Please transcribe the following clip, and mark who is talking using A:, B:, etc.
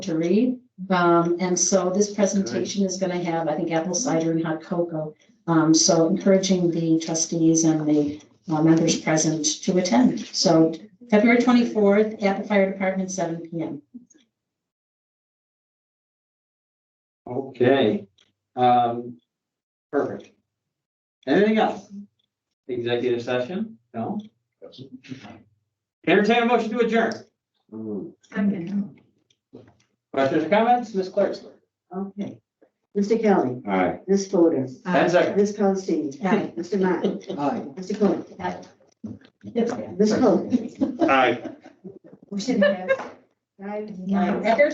A: to read. Um, and so this presentation is gonna have, I think, apple cider and hot cocoa. Um, so encouraging the trustees and the uh, members present to attend. So February twenty-fourth at the fire department, seven P M.
B: Okay, um, perfect. Anything else? Executive session? No? Entertain a motion to adjourn.
C: Second.
B: Questions or comments, Ms. Clerk?
D: Okay. Mr. Kelly,
B: Aye.
D: Ms. Fodor,
B: Ten seconds.
D: Ms. Paulson,
A: Aye.
D: Mr. Matt,
E: Aye.
D: Mr. Cohen, Ms. Cohen.
E: Aye.
D: Motion passed. Five,
C: Yeah.
D: nine.